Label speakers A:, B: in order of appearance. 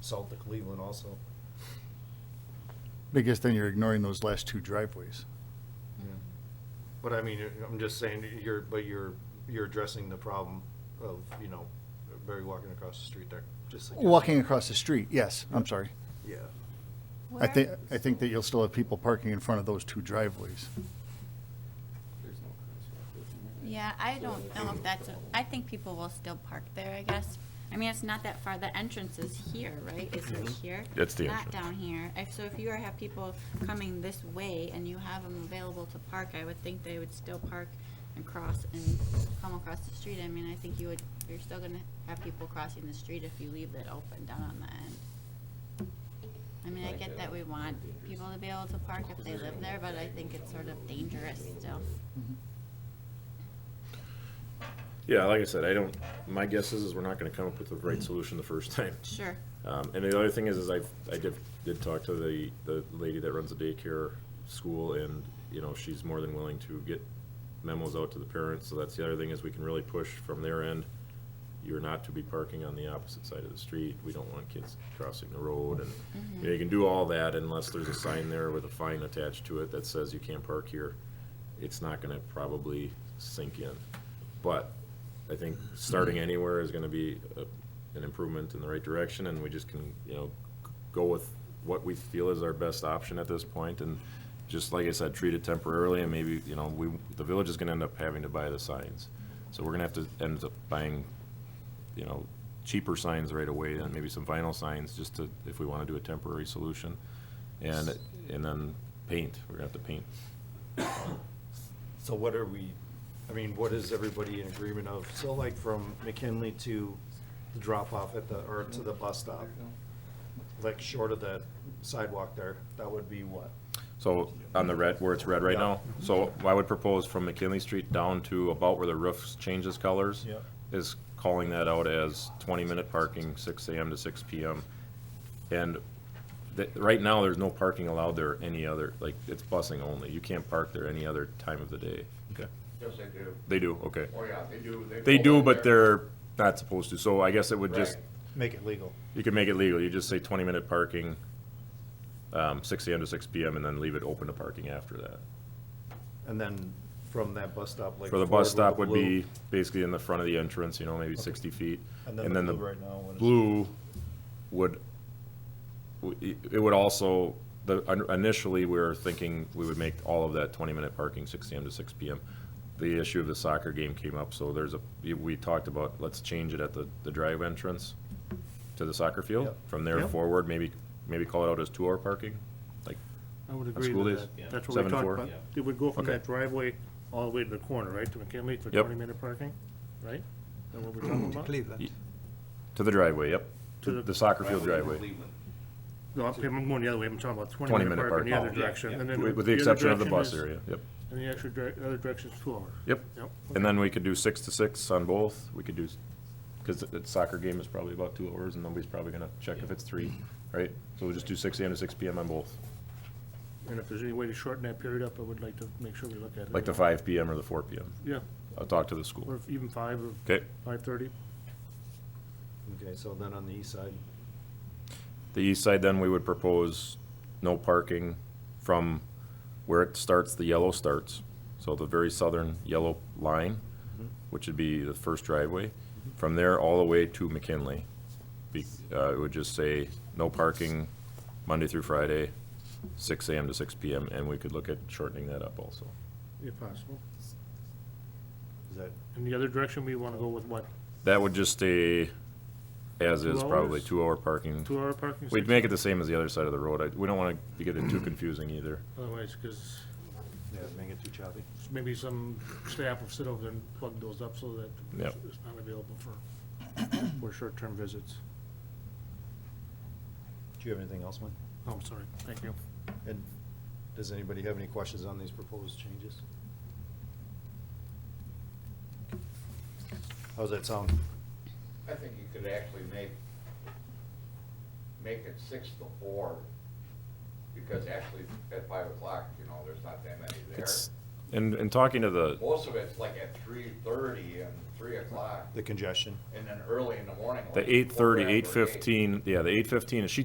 A: sold to Cleveland also.
B: Because then you're ignoring those last two driveways.
A: But I mean, I'm just saying, you're, but you're, you're addressing the problem of, you know, Barry walking across the street there, just like.
B: Walking across the street, yes, I'm sorry.
A: Yeah.
B: I think, I think that you'll still have people parking in front of those two driveways.
C: Yeah, I don't know if that's, a- I think people will still park there, I guess. I mean, it's not that far, the entrance is here, right? Is it here?
D: Mm-hmm. That's the
C: Not
D: entrance.
C: down here. If, so if you have people coming this way and you have them available to park, I would think they would still park and cross and come across the street. I mean, I think you would, you're still gonna have people crossing the street if you leave that open down on the end. I mean, I get that we want people to be able to park if they live there, but I think it's sort of dangerous still.
D: Yeah, like I said, I don't, my guess is, is we're not gonna come up with the right solution the first time.
C: Sure.
D: Um, and the other thing is, is I, I did, did talk to the, the lady that runs the daycare school and, you know, she's more than willing to get memos out to the parents, so that's the other thing is we can really push from their end. You're not to be parking on the opposite side of the street, we don't want kids crossing the road and, you know, you can do all that unless there's a sign there with a fine attached to it that says you can't park here. It's not gonna probably sink in, but I think starting anywhere is gonna be a- an improvement in the right direction, and we just can, you know, go with what we feel is our best option at this point, and just like I said, treat it temporarily, and maybe, you know, we, the village is gonna end up having to buy the signs. So we're gonna have to end up buying, you know, cheaper signs right away, and maybe some vinyl signs, just to, if we wanna do a temporary solution. And, and then paint, we're gonna have to paint.
A: So what are we, I mean, what is everybody in agreement of? So like from McKinley to the drop off at the, or to the bus stop, like short of that sidewalk there, that would be what?
D: So on the red, where it's red right now, so I would propose from McKinley Street down to about where the roof changes colors.
A: Yep.
D: Is calling that out as twenty-minute parking, six AM to six PM. And th right now, there's no parking allowed there any other, like, it's busing only. You can't park there any other time of the day. Okay.
E: Yes, they do.
D: They do, okay.
E: Oh, yeah, they do.
D: They
E: pull
D: do,
E: up
D: but
E: there.
D: they're not supposed to, so I guess it would just,
E: Right.
A: Make it legal.
D: you could make it legal, you just say twenty-minute parking, um, six AM to six PM, and then leave it open to parking after that.
A: And then from that bus stop, like.
D: For the
A: forward
D: bus
A: with
D: stop would
A: blue,
D: be basically in the front of the entrance, you know, maybe sixty feet.
A: And then the blue right now. what is-
D: Blue would, w- it would also, the, initially, we were thinking we would make all of that twenty-minute parking, six AM to six PM. The issue of the soccer game came up, so there's a, we talked about, let's change it at the, the drive entrance to the soccer field.
A: Yep.
D: From there
F: Yep.
D: forward, maybe, maybe call it out as two-hour parking, like,
F: I would agree
D: school
F: with
D: days?
F: that.
D: Yeah.
F: That's what
D: Seven
F: we
D: to
F: talked
D: four?
F: about.
D: Yeah.
F: It would go from
D: Okay.
F: that driveway all the way to the corner, right, to McKinley for
D: Yep.
F: twenty-minute parking, right? Is that what we're talking about?
G: Cleveland.
D: to the driveway, yep,
F: To
D: to
F: the-
D: the soccer field driveway.
E: Cleveland.
F: No, I'm I'm going the other way, I'm talking about twenty-minute parking in the other
D: parking.
F: direction. and then
D: With with the
F: other
D: exception of the
F: direction
D: bus
F: is-
D: area, yep.
F: And the extra, dir- the other direction's two hour.
D: Yep.
F: Yep.
D: And then we could do six to six on both. We could do, because the soccer game is probably about two hours and nobody's probably gonna check if it's three, right? So we'll just do six AM to six PM on both,
F: And if there's any way to shorten that period up, I would like to make sure we look at it.
D: like the five PM or the four PM.
F: Yeah,
D: I'll talk to the
F: or
D: school.
F: if even five or
D: Okay,
F: five-thirty.
A: Okay, so then on the east side,
D: the east side then, we would propose no parking from where it starts, the yellow starts. So the very southern yellow line,
F: Mm-hmm.
D: which would be the first driveway. From there all the way to McKinley. Be- uh, It would just say, no parking Monday through Friday, six AM to six PM, and we could look at shortening that up also.
F: if possible.
A: is that
F: In the other direction, we wanna go with what,
D: That would just stay as is,
F: Two
D: probably
F: hours?
D: two-hour parking.
F: two-hour parking?
D: We'd
F: six-
D: make it the same as the other side of the road. I- We don't want to get it too confusing either.
F: Otherwise, cause
A: Yeah, make it too choppy.
F: maybe some staff will sit over there and plug those up so that
D: Yep.
F: it's not available for, for short-term visits.
A: Do you have anything else, Mike?
F: Oh, I'm sorry, thank you.
A: And does anybody have any questions on these proposed changes? How's that sound?
E: I think you could actually make, make it six to four, because actually at five o'clock, you know, there's not that many there.
D: It's, And, and talking to the,
E: Most of it's like at three thirty and three o'clock,
A: the congestion.
E: and then early in the morning.
D: the
E: like
D: eight thirty,
E: quarter after
D: eight fifteen, yeah, the eight fifteen, and she